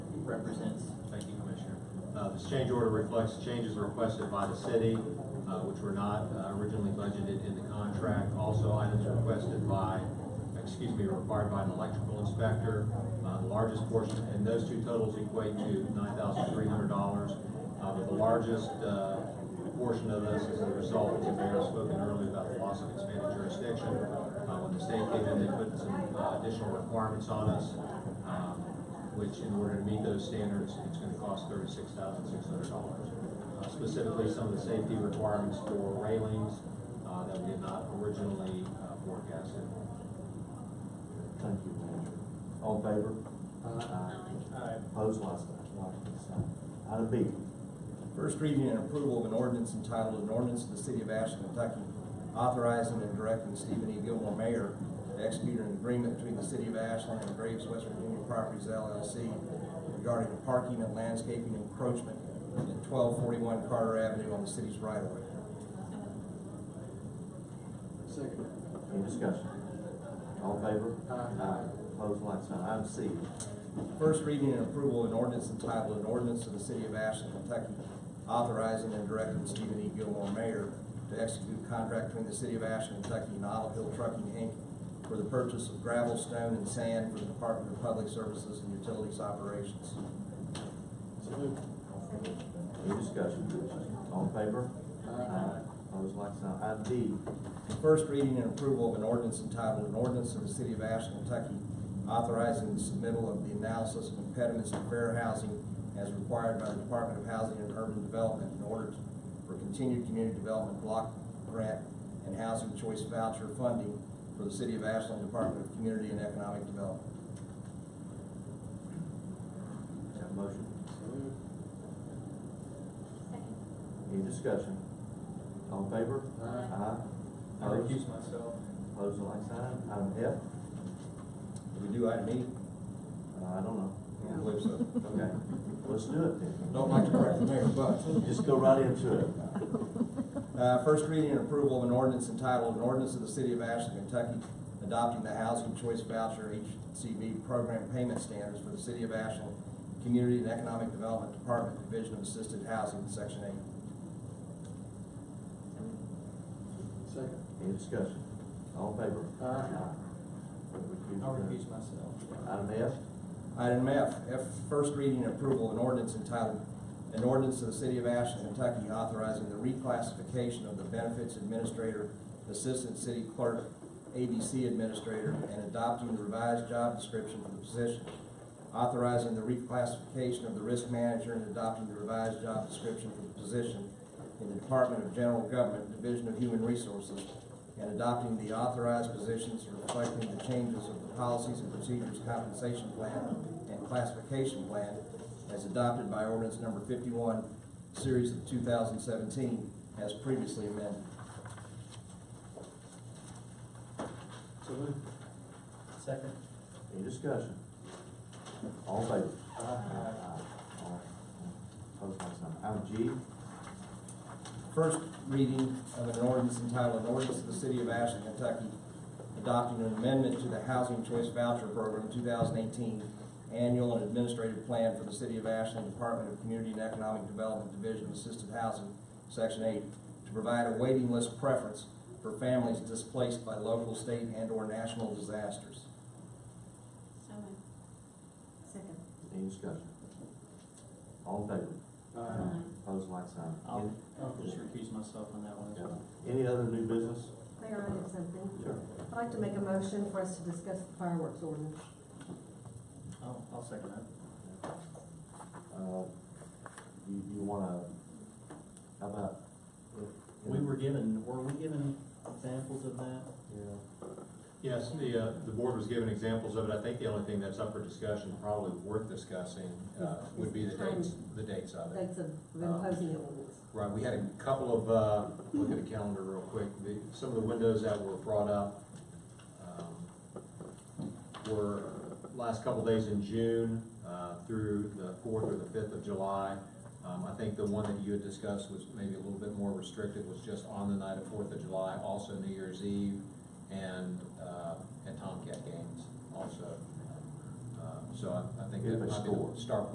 represents. Thank you, Commissioner. Uh, This change order reflects changes requested by the city, uh, which were not uh, originally budgeted in the contract. Also, items requested by, excuse me, required by an electrical inspector, uh, the largest portion, and those two totals equate to nine thousand three hundred dollars. But the largest uh, portion of this is a result, as the mayor spoke earlier about the loss of expanded jurisdiction. Uh, When the state came in, they put some uh, additional requirements on us. um, which in order to meet those standards, it's gonna cost thirty-six thousand six hundred dollars. Uh, Specifically, some of the safety requirements for railings, uh, that we had not originally uh, forecasted. Thank you, Manager. All in favor? Aye. Opposed, like sign, like sign. Item B, First reading and approval of an ordinance entitled, an ordinance of the city of Ashland, Kentucky, authorizing and directing Stephen E. Gilmore, mayor, to execute an agreement between the city of Ashland and Graves West Virginia Properties LLC regarding parking and landscaping encroachment at twelve forty-one Carter Avenue on the city's right of way. Second. any discussion? All in favor? Aye. Opposed, like sign. Item C, First reading and approval of an ordinance entitled, an ordinance of the city of Ashland, Kentucky, authorizing and directing Stephen E. Gilmore, mayor, to execute a contract between the city of Ashland, Kentucky and Olive Hill Trucking, Inc. for the purchase of gravel, stone, and sand for the Department of Public Services and Utilities operations. So moved. any discussion? All in favor? Aye. Opposed, like sign. Item D, First reading and approval of an ordinance entitled, an ordinance of the city of Ashland, Kentucky, authorizing the submittal of the analysis of impediments to fair housing as required by the Department of Housing and Urban Development in order to- for continued community development block grant and housing choice voucher funding for the city of Ashland Department of Community and Economic Development. is that a motion? So moved. Any discussion? All in favor? Aye. Aye. I Opposed, recuse myself. opposed, like sign. Item F, Do we do item E? uh, I don't know. I believe so. Okay, let's do it then. Don't like to correct the mayor, but. Just go right into it. Uh, First reading and approval of an ordinance entitled, an ordinance of the city of Ashland, Kentucky, adopting the Housing Choice Voucher HCV Program Payment Standards for the city of Ashland, Community and Economic Development Department, Division of Assisted Housing, Section Eight. Second. Any discussion? All in favor? Aye. I recuse myself. Item F, Item F, F, first reading and approval of an ordinance entitled, an ordinance of the city of Ashland, Kentucky, authorizing the reclassification of the benefits administrator, assistant city clerk, ABC administrator, and adopting the revised job description for the position. Authorizing the reclassification of the risk manager and adopting the revised job description for the position in the Department of General Government, Division of Human Resources, and adopting the authorized positions reflecting the changes of the policies and procedures compensation plan and classification plan as adopted by ordinance number fifty-one, series of two thousand seventeen, as previously amended. So moved. Second. any discussion? All in favor? Aye. All right. Opposed, like sign. Item G, First reading of an ordinance entitled, an ordinance of the city of Ashland, Kentucky, adopting an amendment to the Housing Choice Voucher Program two thousand eighteen Annual and Administrative Plan for the City of Ashland Department of Community and Economic Development Division of Assisted Housing, Section eight, to provide a waiting list preference for families displaced by local, state, and/or national disasters. So moved. Second. any discussion? All in favor? Uh, Aye. Opposed, like sign. I'll, I'll just recuse myself on that one as well. Any any other new business? Mayor, I have something. Sure. I'd like to make a motion for us to discuss the fireworks ordinance. I'll, I'll second that. Uh, You, you wanna, how about? We were given, were we given examples of that? Yeah. Yes, the, uh, the board was given examples of it. I think the only thing that's up for discussion, probably worth discussing, uh, would be the dates, the dates of it. Dates of imposing the ordinance. Right, we had a couple of, uh, look at the calendar real quick, the, some of the windows that were brought up, um, were last couple days in June, uh, through the fourth or the fifth of July. Um, I think the one that you had discussed was maybe a little bit more restrictive, was just on the night of Fourth of July, also New Year's Eve, and, uh, and Tomcat games also. Um, So I, I think If that they might be the score. start